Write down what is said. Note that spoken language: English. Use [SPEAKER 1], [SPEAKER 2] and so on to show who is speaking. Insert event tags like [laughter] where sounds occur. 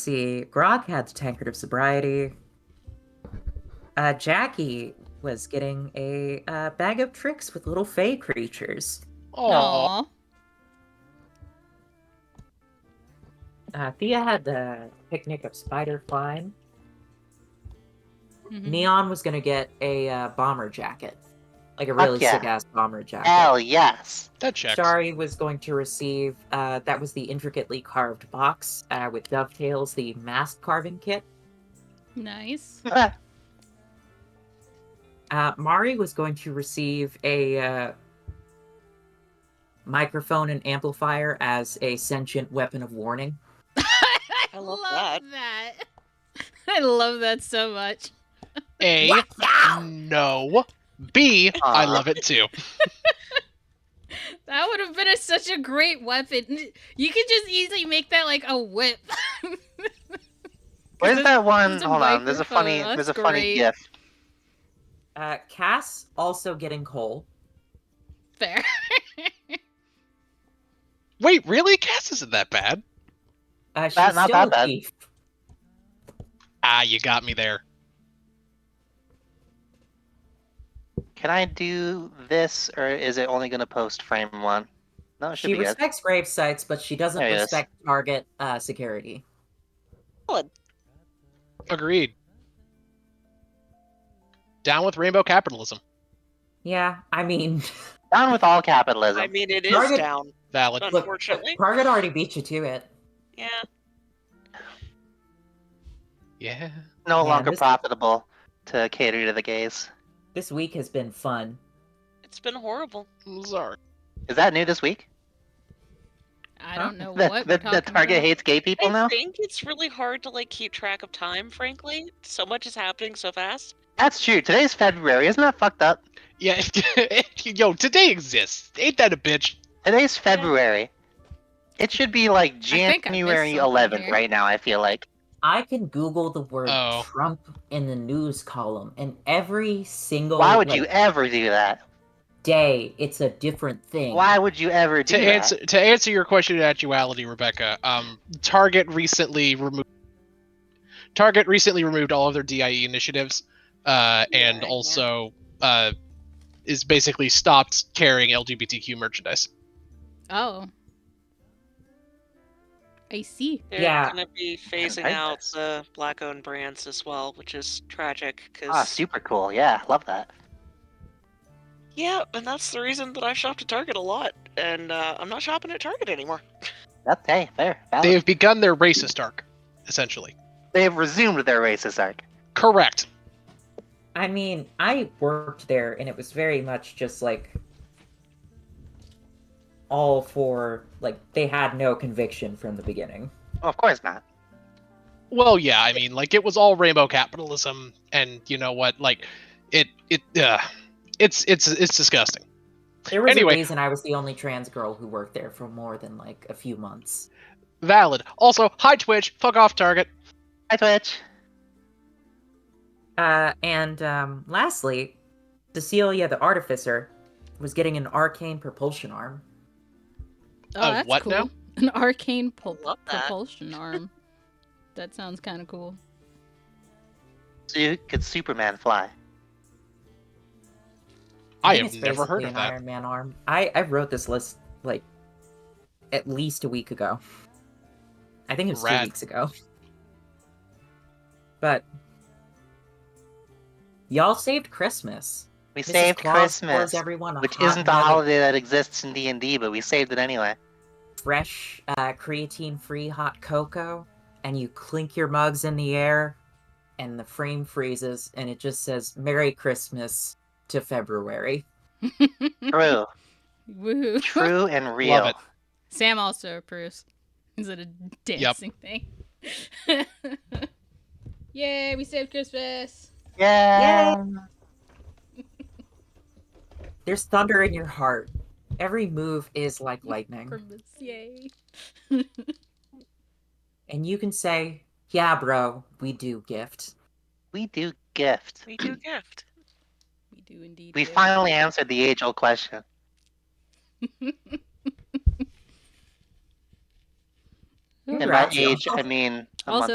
[SPEAKER 1] see, Grog had the tankard of sobriety. Uh, Jackie was getting a uh, bag of tricks with little fey creatures.
[SPEAKER 2] Aw.
[SPEAKER 3] Aw.
[SPEAKER 1] Uh, Thea had the picnic of spider flying.
[SPEAKER 2] Mm-hmm.
[SPEAKER 3] Mhm.
[SPEAKER 1] Neon was gonna get a uh, bomber jacket, like a really
[SPEAKER 2] yeah.
[SPEAKER 1] sick ass bomber jacket.
[SPEAKER 2] Hell yes.
[SPEAKER 4] That checks.
[SPEAKER 1] Shari was going to receive uh, that was the intricately carved box uh, with dovetails, the mask carving kit.
[SPEAKER 3] Nice. [laughs]
[SPEAKER 1] Uh, Mari was going to receive a uh, microphone and amplifier as a sentient weapon of warning.
[SPEAKER 2] I love that.
[SPEAKER 3] that. [laughs] I love that so much.
[SPEAKER 4] A. No. B. I
[SPEAKER 2] Aw.
[SPEAKER 4] love it too.
[SPEAKER 3] That would have been a, such a great weapon. You could just easily make that like a whip. [laughs]
[SPEAKER 2] Where's
[SPEAKER 3] There's-
[SPEAKER 2] that one?
[SPEAKER 3] there's a
[SPEAKER 2] Hold on. There's a
[SPEAKER 3] microphone,
[SPEAKER 2] funny.
[SPEAKER 3] that's
[SPEAKER 2] There's a funny
[SPEAKER 3] great.
[SPEAKER 2] gif.
[SPEAKER 1] Uh, Cass also getting coal.
[SPEAKER 3] Fair.
[SPEAKER 4] Wait, really? Cass isn't that bad.
[SPEAKER 1] Uh, she's
[SPEAKER 2] That- not
[SPEAKER 1] still
[SPEAKER 2] that
[SPEAKER 1] a
[SPEAKER 2] bad.
[SPEAKER 1] thief.
[SPEAKER 4] Ah, you got me there.
[SPEAKER 2] Can I do this, or is it only gonna post frame one? No, it should
[SPEAKER 1] She
[SPEAKER 2] be good.
[SPEAKER 1] respects grave sites, but she doesn't
[SPEAKER 2] There it is.
[SPEAKER 1] respect target uh, security.
[SPEAKER 4] Agreed. Down with rainbow capitalism.
[SPEAKER 1] Yeah, I mean, [laughs]
[SPEAKER 2] Down with all capitalism.
[SPEAKER 5] I mean, it is
[SPEAKER 1] Target-
[SPEAKER 5] down.
[SPEAKER 4] Valid.
[SPEAKER 1] look,
[SPEAKER 5] Unfortunately.
[SPEAKER 1] Target already beat you to it.
[SPEAKER 5] Yeah.
[SPEAKER 4] Yeah.
[SPEAKER 2] no
[SPEAKER 1] Yeah,
[SPEAKER 2] longer
[SPEAKER 1] this-
[SPEAKER 2] profitable to cater to the gays.
[SPEAKER 1] This week has been fun.
[SPEAKER 5] It's been horrible.
[SPEAKER 4] I'm sorry.
[SPEAKER 2] Is that new this week?
[SPEAKER 3] I
[SPEAKER 1] Huh?
[SPEAKER 3] don't know
[SPEAKER 2] That
[SPEAKER 3] what
[SPEAKER 2] that,
[SPEAKER 3] we're
[SPEAKER 2] that
[SPEAKER 3] talking
[SPEAKER 2] Target
[SPEAKER 3] about.
[SPEAKER 2] hates gay people
[SPEAKER 5] I
[SPEAKER 2] now.
[SPEAKER 5] think it's really hard to like keep track of time, frankly. So much is happening so fast.
[SPEAKER 2] That's true. Today's February. Isn't that fucked up?
[SPEAKER 4] Yeah. [laughs] Yo, today exists. Ain't that a bitch?
[SPEAKER 2] Today's February. It should be
[SPEAKER 3] think
[SPEAKER 2] like
[SPEAKER 3] I missed
[SPEAKER 2] January
[SPEAKER 3] something
[SPEAKER 2] 11th
[SPEAKER 3] here.
[SPEAKER 2] right now. I feel like.
[SPEAKER 1] I can Google the word
[SPEAKER 4] Oh.
[SPEAKER 1] Trump in the news column, and every
[SPEAKER 4] Oh,
[SPEAKER 1] single
[SPEAKER 2] Why would
[SPEAKER 1] like,
[SPEAKER 2] you ever do that?
[SPEAKER 1] day it's a different thing.
[SPEAKER 2] Why would you ever do
[SPEAKER 4] To
[SPEAKER 2] that?
[SPEAKER 4] answer to answer your question in actuality, Rebecca, um, Target recently removed Target recently removed all of their DIE initiatives, uh, and
[SPEAKER 5] Yeah,
[SPEAKER 4] also uh, is basically stopped carrying LGBTQ merchandise.
[SPEAKER 3] Oh. I see.
[SPEAKER 5] They're
[SPEAKER 1] Yeah.
[SPEAKER 5] gonna be phasing
[SPEAKER 2] like
[SPEAKER 5] out
[SPEAKER 2] that.
[SPEAKER 5] the black-owned brands as well, which is tragic. Cause
[SPEAKER 2] Ah, super cool. Yeah, love that.
[SPEAKER 5] yeah, and that's the reason that I shopped at Target a lot, and uh, I'm not shopping at Target anymore.
[SPEAKER 2] That's hey, fair.
[SPEAKER 4] They
[SPEAKER 2] Valid.
[SPEAKER 4] have begun their racist arc, essentially.
[SPEAKER 2] They have resumed their racist arc.
[SPEAKER 4] Correct.
[SPEAKER 1] I mean, I worked there, and it was very much just like all for like they had no conviction from the beginning.
[SPEAKER 2] Well, of course not.
[SPEAKER 4] Well, yeah, I mean, like it was all rainbow capitalism, and you know what? Like, it it uh, it's it's it's disgusting.
[SPEAKER 1] There was
[SPEAKER 4] Anyway.
[SPEAKER 1] a reason I was the only trans girl who worked there for more than like a few months.
[SPEAKER 4] Valid. Also, hi Twitch. Fuck off, Target.
[SPEAKER 2] Hi, Twitch.
[SPEAKER 1] Uh, and um, lastly, Cecilia the artificer was getting an arcane propulsion arm.
[SPEAKER 3] Oh,
[SPEAKER 4] Uh,
[SPEAKER 3] that's
[SPEAKER 4] what
[SPEAKER 3] cool.
[SPEAKER 4] now?
[SPEAKER 3] [laughs] An arcane pul-
[SPEAKER 5] Love that.
[SPEAKER 3] propulsion
[SPEAKER 2] [laughs]
[SPEAKER 3] arm. that sounds kind of cool. [laughs]
[SPEAKER 2] So you could Superman fly?
[SPEAKER 4] I
[SPEAKER 1] think
[SPEAKER 4] have
[SPEAKER 1] it's
[SPEAKER 4] never heard
[SPEAKER 1] basically
[SPEAKER 4] of
[SPEAKER 1] an
[SPEAKER 4] that.
[SPEAKER 1] Iron Man arm. I I wrote this list like at least a week ago. I think it was
[SPEAKER 4] Rad.
[SPEAKER 1] two weeks ago. But y'all saved Christmas.
[SPEAKER 2] We
[SPEAKER 1] Mrs.
[SPEAKER 2] saved
[SPEAKER 1] Claus pours
[SPEAKER 2] Christmas,
[SPEAKER 1] everyone a
[SPEAKER 2] which
[SPEAKER 1] hot
[SPEAKER 2] isn't a
[SPEAKER 1] mug of
[SPEAKER 2] holiday that exists in D and D, but we saved it anyway.
[SPEAKER 1] fresh, uh, creatine-free hot cocoa, and you clink your mugs in the air, and the frame freezes, and it just says "Merry Christmas" to February.
[SPEAKER 2] True,
[SPEAKER 3] Woohoo.
[SPEAKER 2] true, and real.
[SPEAKER 4] it.
[SPEAKER 3] Sam also approves. Is it a dancing thing? [laughs] Yay, we saved Christmas.
[SPEAKER 2] Yeah.
[SPEAKER 1] There's thunder in your heart. Every move is like lightning.
[SPEAKER 3] Christmas, yay.
[SPEAKER 1] and you can say, "Yeah, bro, we do gift."
[SPEAKER 2] We do gift.
[SPEAKER 5] We do gift.
[SPEAKER 3] We do indeed.
[SPEAKER 2] We
[SPEAKER 3] do.
[SPEAKER 2] finally answered the age-old question.
[SPEAKER 1] And
[SPEAKER 2] And by
[SPEAKER 1] Congrats, y'all.
[SPEAKER 2] age, I mean a month
[SPEAKER 3] Also,